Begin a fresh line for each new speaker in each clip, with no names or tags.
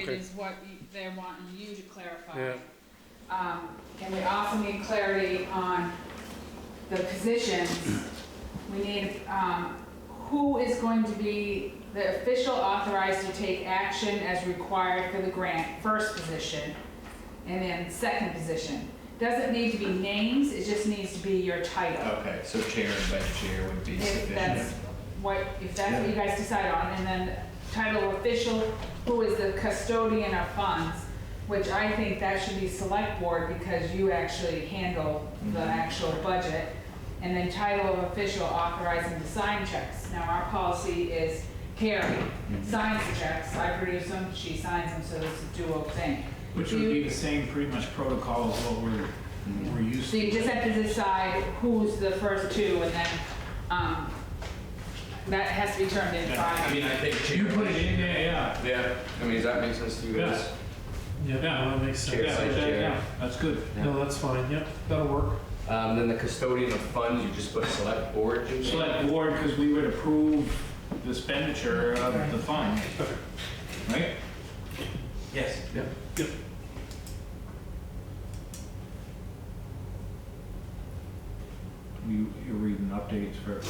it
Okay.
is what you- they're wanting you to clarify.
Yeah.
Um, and we also need clarity on the positions. We need, um, who is going to be the official authorized to take action as required for the grant, first position, and then second position. Doesn't need to be names, it just needs to be your title.
Okay, so chair and vice chair would be
If
sufficient.
that's what, if that's what you guys decide on, and then title official, who is the custodian of funds, which I think that should be select board because you actually handle the actual budget. And then title of official authorizing to sign checks. Now, our policy is Carrie signs the checks, I produce them, she signs them, so it's a dual thing.
Which would be
You-
the same pretty much protocol as what we're, we're used
So
to.
you just have to decide who's the first two, and then, um, that has to be turned in
Yeah,
by.
I mean, I think chair.
You put it in there, yeah.
Yeah, I mean, does that make sense to you guys?
Yeah.
Yeah, no, that makes
Yeah,
sense.
Chair.
like that, yeah, that's good.
No, that's fine, yep, that'll work.
Um, then the custodian of funds, you just put select board, you mean?
Select board, because we would approve the expenditure of the fund, right?
Yes. Yeah.
You, you're reading updates for,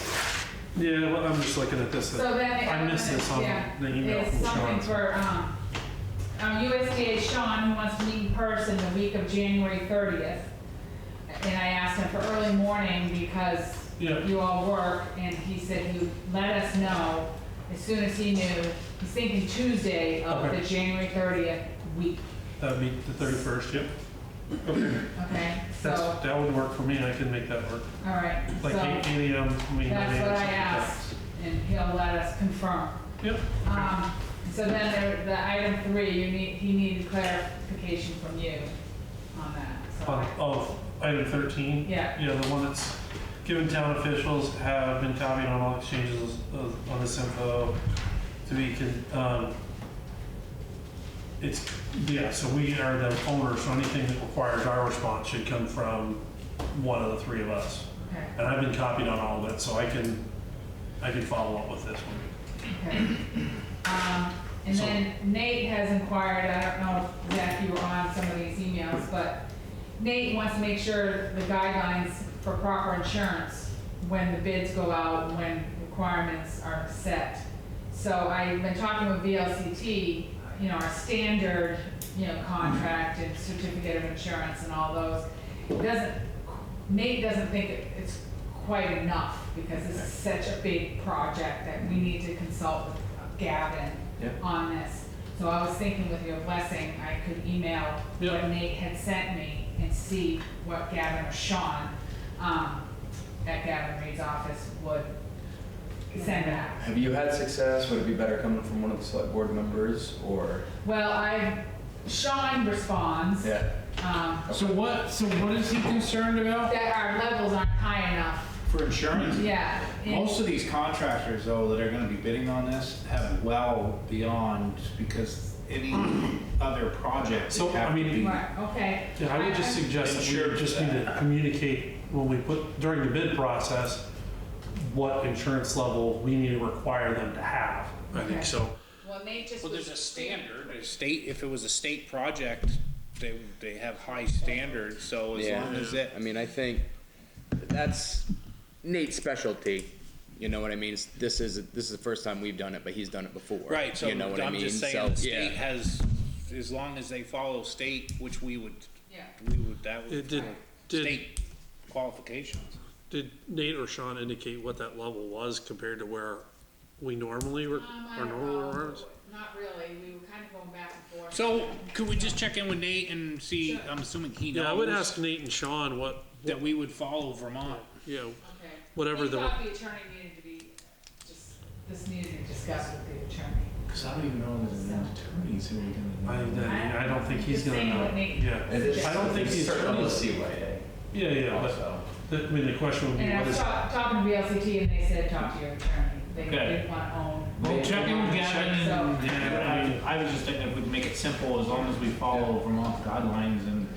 Yeah, well, I'm just looking at this.
So then. it-
I missed this on
yeah,
the email
it's
from
something
Sean.
for, um, um, USDA Sean who wants to meet in person the week of January thirtieth. And I asked him for early morning because
Yeah.
you all work, and he said he would let us know as soon as he knew. He's thinking Tuesday of
Okay.
the January thirtieth week,
That'd be the thirty-first, yep. Okay,
okay?
that's,
So,
that would work for me, I can make that work.
all right,
Like eight
so
eight AM, we may.
that's what I asked, and he'll let us confirm.
Yep,
Um, so then there, the item three, you need, he needed clarification from you on that, so.
on, oh, item thirteen.
Yeah,
Yeah, the one that's given town officials have been copied on all exchanges of- on this info to be, con- um, it's, yeah, so we are the owner, so anything that requires our response should come from one of the three of us.
okay,
And I've been copied on all of it, so I can, I can follow up with this one.
okay. Um, and
So-
then Nate has inquired, I don't know if Zach, you were on some of these emails, but Nate wants to make sure the guidelines for proper insurance when the bids go out, when requirements are set. So I've been talking with VLCT, you know, our standard, you know, contract and certificate of insurance and all those. It Doesn't, Nate doesn't think it- it's quite enough because this is such a big project that we need to consult with Gavin
Yeah.
on this. So I was thinking with your blessing, I could email what
Yeah.
Nate had sent me and see what Gavin or Sean, um, at Gavin Reed's office would send out.
Have you had success? Would it be better coming from one of the select board members or?
Well, I, Sean responds,
Yeah.
um,
so what, so what is he concerned about?
that our levels aren't high enough,
For insurance?
yeah. and-
Most of these contractors, though, that are gonna be bidding on this have well beyond, because any other project.
So,
they have
I mean-
to be-
Right, okay.
Yeah, I would just suggest that
Sure.
we just need to communicate when we put, during the bid process, what insurance level we need to require them to have. I
Okay.
think so.
Well, Nate just.
Well,
was-
there's a standard, a state, if it was a state project, they, they have high standards, so as
Yeah.
long as it,
I mean, I think that's Nate's specialty. You know what I mean? It's- This is, this is the first time we've done it, but he's done it before.
right, so
You know what I
I'm
mean?
just
So,
saying, the
yeah.
state has, as long as they follow state, which we would,
Yeah.
we would, that
It
would,
did, did,
state qualifications.
did Nate or Sean indicate what that level was compared to where we normally, re-
Um, I
our
don't
normal
know.
requirements?
Not really, we were kind of going back and forth.
So, could we just check in with Nate and see,
Sure.
I'm assuming he knows.
Yeah, I would ask Nate and Sean what,
That we would follow Vermont.
you know,
Okay.
whatever
He
the-
thought the attorney needed to be, just, this needed to be discussed with the attorney.
Cause I don't even know if there's any attorneys who are
I,
gonna.
I don't think he's
Just
gonna
saying
know.
what Nate-
Yeah, I don't think the attorneys-
CYA
yeah, yeah, but, um,
also.
the- I mean, the question would be,
And I
what
was
is,
talk- talking to VLCT and they said, talk to your attorney, they
Okay.
didn't want to own.
Well, check in with Gavin
So-
and, yeah, I I was just thinking if we make it simple, as long as we follow Vermont guidelines and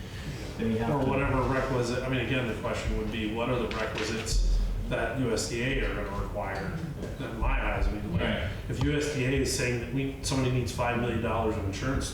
they have
or
to.
whatever requisite, I mean, again, the question would be, what are the requisites that USDA are gonna require? In my eyes, I mean, like,
Right.
if USDA is saying that we, somebody needs five million dollars of insurance